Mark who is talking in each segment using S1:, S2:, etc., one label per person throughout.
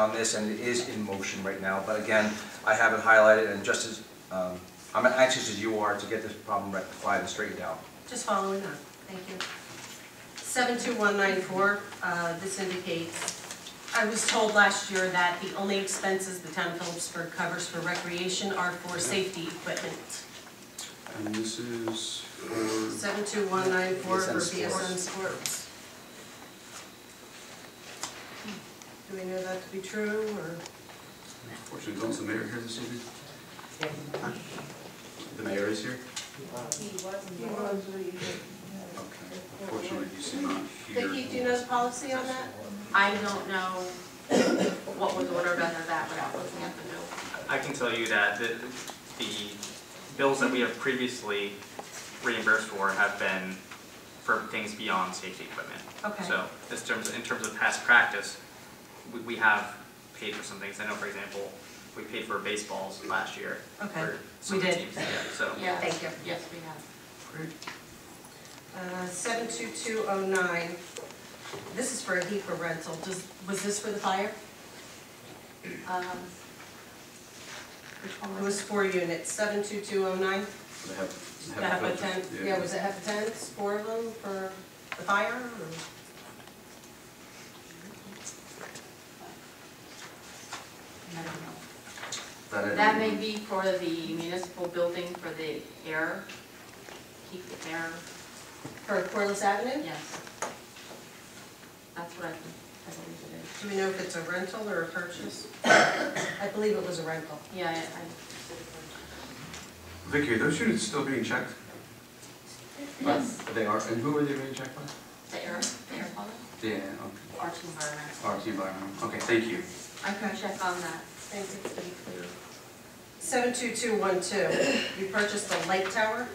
S1: on this, and it is in motion right now, but again, I have it highlighted, and just as, um, I'm anxious as you are to get this problem rectified and straightened out.
S2: Just following up, thank you. 72194, uh, this indicates, I was told last year that the only expenses the town of Phillipsburg covers for recreation are for safety equipment.
S3: And this is for,
S2: 72194 for
S1: BSN
S2: BSN Sports. Do we know that to be true, or?
S3: unfortunately, is the mayor here this evening? The mayor is here? Okay, unfortunately, he's not here.
S2: Vicki, do you know the policy on that? I don't know what was ordered under that without looking at the note.
S4: I can tell you that the, the bills that we have previously reimbursed for have been for things beyond safety equipment.
S2: Okay.
S4: So, in terms, in terms of past practice, we, we have paid for some things. I know, for example, we paid for baseballs last year.
S2: Okay,
S4: for
S2: we
S4: some of the
S2: did.
S4: teams, yeah, So,
S2: Yeah, thank you. Yes, we have.
S3: Great.
S2: Uh, 72209, this is for a HEPA rental, Does- was this for the fire?
S5: Um,
S2: It was four units, 72209,
S3: They have.
S2: the HEPA tent, oh yeah, was
S3: it?
S2: it HEPA tents, four of them for the fire? or-
S5: I don't know.
S3: I didn't-
S5: That may be for the municipal building for the air, keep the air,
S2: For Corliss Avenue?
S5: yes. That's what I think, I believe it is.
S2: Do we know if it's a rental or a purchase? I believe it was a rental.
S5: Yeah, I,
S3: Vicky, are those units still being checked?
S5: I, yes,
S3: They are, and who are they being checked by?
S5: the air, the air quality,
S3: Yeah, okay.
S5: arch environment.
S3: RT environment, okay, thank you.
S2: Okay.
S5: Check on that.
S2: Thank you for being clear. 72212, you purchased a light tower?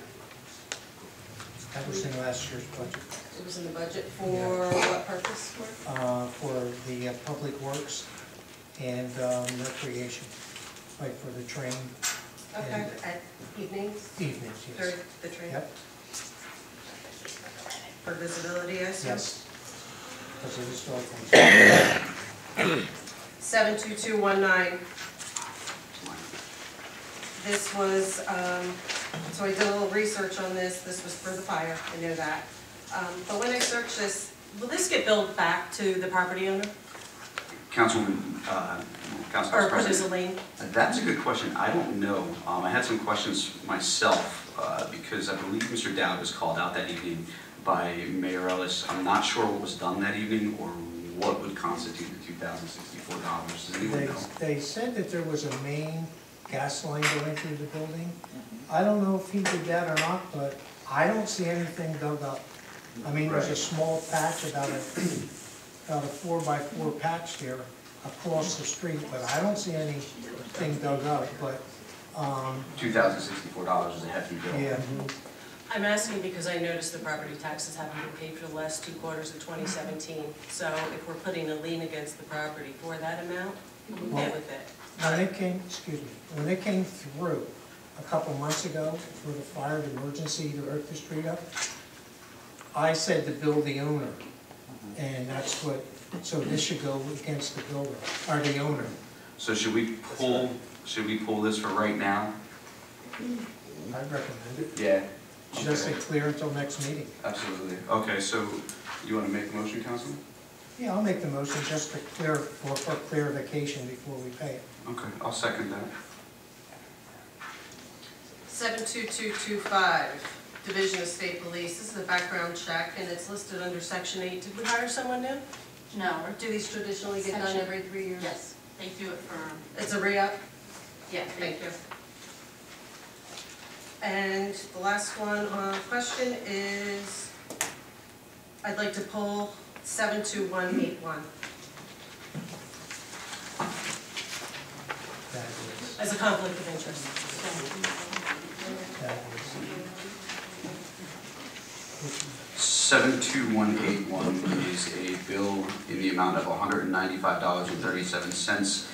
S6: That was in last year's budget,
S2: It was in the budget for what purpose? for?
S6: uh, for the uh, public works and, um, recreation, like for the train
S2: Okay, at evenings,
S6: evenings,
S2: during
S6: yes.
S2: the train,
S6: Yep,
S2: for visibility, I assume?
S6: yes. Because it is local.
S2: 72219, this was, um, so I did a little research on this, this was for the fire, I know that. Um, But when I searched this, will this get billed back to the property owner?
S3: Councilman, uh, Council
S2: Or
S3: Vice
S2: put
S3: President.
S2: as a lien?
S3: Uh, That's a good question. I don't know. Um, I had some questions myself, uh, because I believe Mr. Dowd was called out that evening by Mayor Ellis. I'm not sure what was done that evening or what would constitute the two thousand sixty-four dollars. Does anyone
S6: They,
S3: know?
S6: they said that there was a main gas line going through the building. I don't know if he did that or not, but I don't see anything dug up. I mean, there's a
S3: Right.
S6: small patch, about a, about a four by four patch there across the street, but I don't see anything dug up, but, um,
S3: Two thousand sixty-four dollars is a hefty bill.
S6: yeah.
S2: I'm asking because I noticed the property taxes haven't been paid for the last two quarters of 2017. So if we're putting a lien against the property for that amount, I'm okay with it.
S6: When they came, excuse me, when they came through a couple months ago for the fire, the emergency to earth the street up, I said to bill the owner, and that's what, so this should go against the builder, or the owner.
S3: So should we pull, should we pull this for right now?
S6: I recommend it.
S3: Yeah.
S6: Just to
S3: Okay.
S6: clear until next meeting.
S3: Absolutely. Okay, so you want to make a motion, Councilman?
S6: Yeah, I'll make the motion just to clear, for, for clarification before we pay it.
S3: Okay, I'll second that.
S2: 72225, Division of State Police, this is a background check, and it's listed under Section 8. Did we hire someone new?
S5: No,
S2: Or do these traditionally get done
S5: Section-
S2: every three years?
S5: yes, they do it for,
S2: It's a re-up?
S5: yeah, they
S2: Thank you. And the last one, uh, question is, I'd like to pull 72181
S6: That is,
S2: as a conflict of interest.
S6: that is.
S3: Seven two one eight one is a bill in the amount of one hundred and ninety-five dollars and thirty-seven cents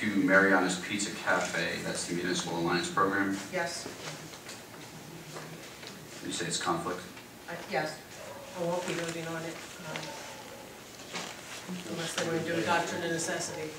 S3: to Mariana's Pizza Cafe, that's the Municipal Alliance Program.
S2: Yes,
S3: You say it's conflict?
S2: I- yes. I won't be voting on it um, unless they want to do a doctrine of necessity.